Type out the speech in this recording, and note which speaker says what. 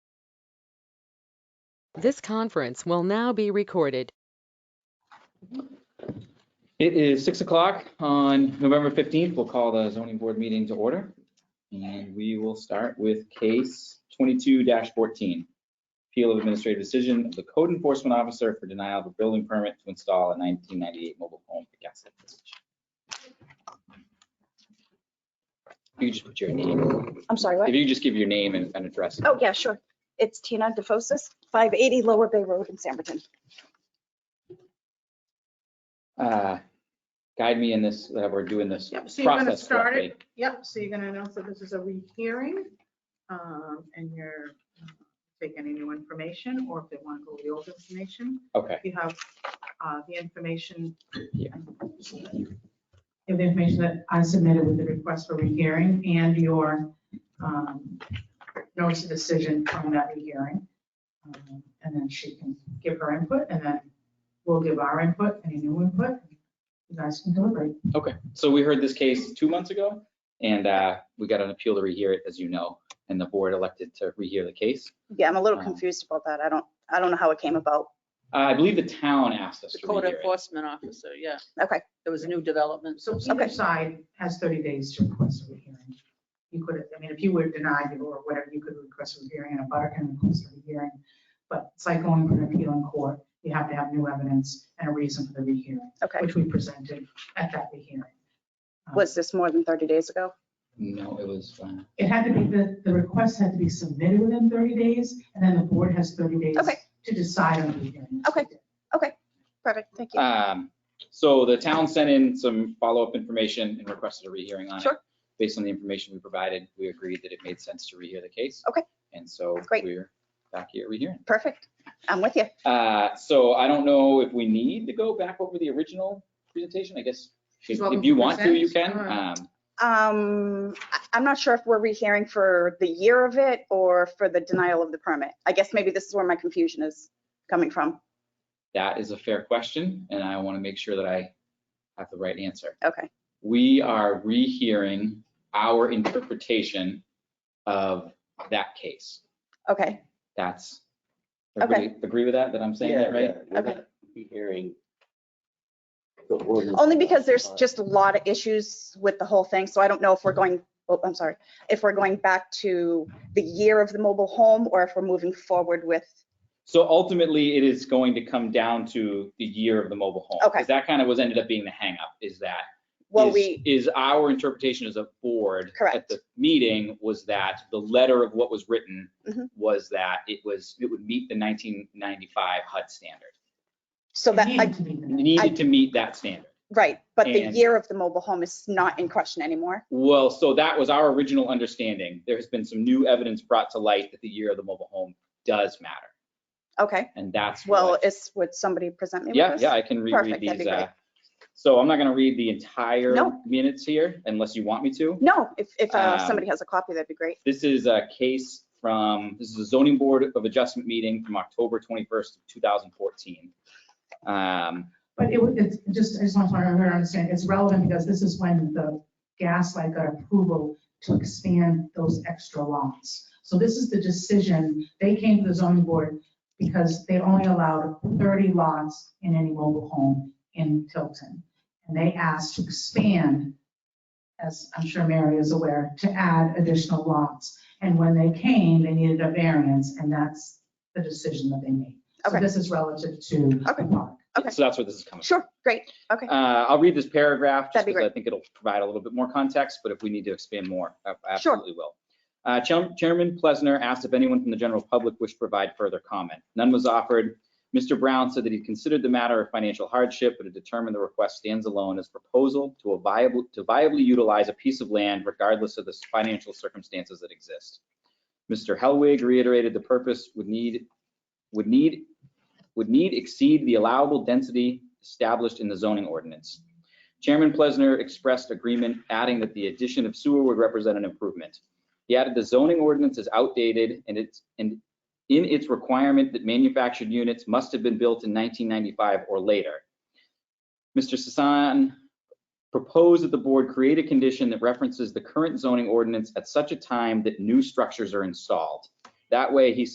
Speaker 1: This conference will now be recorded.
Speaker 2: It is six o'clock on November fifteenth. We'll call the zoning board meeting to order. And we will start with case twenty-two fourteen. Appeal of administrative decision of the code enforcement officer for denial of a building permit to install a nineteen ninety-eight mobile home for gas station. If You could just put your name,
Speaker 3: I'm sorry,
Speaker 2: if
Speaker 3: what?
Speaker 2: you could just give your name and and address.
Speaker 3: Oh, yeah, sure. It's Tina DeFosis, 580 Lower Bay Road in Samberton.
Speaker 2: Uh, Guide me in this, that we're doing this
Speaker 4: Yep, so you're gonna
Speaker 2: process
Speaker 4: start
Speaker 2: correctly.
Speaker 4: it, yep, so you're gonna announce that this is a rehearing, um, and you're uh, take any new information, or if they wanna go with the old information,
Speaker 2: Okay,
Speaker 4: you have, uh, the information.
Speaker 2: Yeah.
Speaker 4: And the information that I submitted with the request for rehearing and your, um, notice of decision from that rehearing. Um, And then she can give her input, and then we'll give our input, any new input, you guys can deliberate.
Speaker 2: okay. So we heard this case two months ago, and uh, we got an appeal to rehear it, as you know, and the board elected to rehear the case.
Speaker 3: Yeah, I'm a little
Speaker 2: Um,
Speaker 3: confused about that. I don't, I don't know how it came about.
Speaker 2: Uh, I believe the town asked us
Speaker 5: The
Speaker 2: to
Speaker 5: code
Speaker 2: rehear it.
Speaker 5: enforcement officer, yeah.
Speaker 3: Okay,
Speaker 5: There was a new development.
Speaker 4: So
Speaker 3: Okay.
Speaker 4: either side has 30 days to request a rehearing. You could, I mean, if you were denied it or whatever, you could request a rehearing and a butter can request a rehearing. But it's like going for an appeal in court, you have to have new evidence and a reason for the rehearing,
Speaker 3: okay.
Speaker 4: which we presented at that rehearing. Um,
Speaker 3: Was this more than 30 days ago?
Speaker 2: No, it was, uh,
Speaker 4: It had to be, the, the request had to be submitted within 30 days, and then the board has 30 days
Speaker 3: Okay.
Speaker 4: to decide on the rehearing.
Speaker 3: Okay. Perfect, thank you.
Speaker 2: um, so the town sent in some follow-up information and requested a rehearing on it.
Speaker 3: Sure.
Speaker 2: Based on the information we provided, we agreed that it made sense to rehear the case.
Speaker 3: Okay.
Speaker 2: And so
Speaker 3: Great.
Speaker 2: we're back here rehearing.
Speaker 3: Perfect. I'm with you.
Speaker 2: Uh, So I don't know if we need to go back over the original presentation, I guess.
Speaker 4: She's
Speaker 2: If
Speaker 4: welcome
Speaker 2: if you
Speaker 4: to
Speaker 2: want to, you
Speaker 4: present.
Speaker 2: can.
Speaker 3: Uh,
Speaker 2: Um,
Speaker 3: Um, I- I'm not sure if we're rehearing for the year of it or for the denial of the permit. I guess maybe this is where my confusion is coming from.
Speaker 2: That is a fair question, and I want to make sure that I have the right answer.
Speaker 3: Okay,
Speaker 2: We are rehearing our interpretation of that case.
Speaker 3: okay,
Speaker 2: That's,
Speaker 3: Okay.
Speaker 2: everybody agree with that, that I'm saying that right?
Speaker 3: okay.
Speaker 6: Hearing.
Speaker 3: Only because there's just a lot of issues with the whole thing, so I don't know if we're going, oh, I'm sorry, if we're going back to the year of the mobile home or if we're moving forward with,
Speaker 2: So ultimately, it is going to come down to the year of the mobile home.
Speaker 3: Okay.
Speaker 2: Because that kind of was ended up being the hangup, is that
Speaker 3: well,
Speaker 2: is-
Speaker 3: we,
Speaker 2: Is our interpretation as a board. At
Speaker 3: Correct.
Speaker 2: the meeting was that the letter of what was written
Speaker 3: Mhm.
Speaker 2: was that it was, it would meet the nineteen ninety-five HUD standard.
Speaker 3: so that,
Speaker 4: It
Speaker 3: I
Speaker 4: needed to be the
Speaker 2: It
Speaker 4: next-
Speaker 2: Needed to meet that standard.
Speaker 3: right, but the
Speaker 2: Mm-hmm. And-
Speaker 3: year of the mobile home is not in question anymore.
Speaker 2: Well, so that was our original understanding. There has been some new evidence brought to light that the year of the mobile home does matter.
Speaker 3: Okay,
Speaker 2: And that's
Speaker 3: well,
Speaker 2: what.
Speaker 3: is, would somebody present me with
Speaker 2: Yeah,
Speaker 3: this?
Speaker 2: yeah, I can reread
Speaker 3: Perfect, that'd
Speaker 2: these.
Speaker 3: be great.
Speaker 2: uh, So I'm not going to read the entire
Speaker 3: No.
Speaker 2: minutes here unless you want me to.
Speaker 3: No, if, if uh,
Speaker 2: Um,
Speaker 3: somebody has a copy, that'd be great.
Speaker 2: This is a case from, this is a zoning board of adjustment meeting from October 21st, 2014. Um,
Speaker 4: But it, would- it's just, I just want to understand, it's relevant because this is when the gas light got approval to expand those extra lots. So this is the decision, they came to the zoning board because they only allowed 30 lots in any mobile home in Tilton. And they asked to expand, as I'm sure Mary is aware, to add additional lots. And when they came, they needed a variance, and that's the decision that they made. So
Speaker 3: Okay.
Speaker 4: this is relative to the
Speaker 3: Okay.
Speaker 4: park.
Speaker 3: Okay.
Speaker 2: So that's where this is coming from.
Speaker 3: Sure, great, okay,
Speaker 2: Uh, I'll read this paragraph just
Speaker 3: That'd be
Speaker 2: because I
Speaker 3: great.
Speaker 2: think it'll provide a little bit more context, but if we need to expand more, I I
Speaker 3: Sure.
Speaker 2: absolutely will. Uh, Chair- Chairman Plesner asked if anyone from the general public wished to provide further comment. None was offered. Mr. Brown said that he considered the matter of financial hardship, but had determined the request stands alone as proposal to a viable, to viably utilize a piece of land regardless of the financial circumstances that exist. Mr. Hellwig reiterated the purpose would need, would need, would need exceed the allowable density established in the zoning ordinance. Chairman Plesner expressed agreement, adding that the addition of sewer would represent an improvement. He added the zoning ordinance is outdated and it's, and in its requirement that manufactured units must have been built in 1995 or later. Mr. Sasan proposed that the board create a condition that references the current zoning ordinance at such a time that new structures are installed. That way, he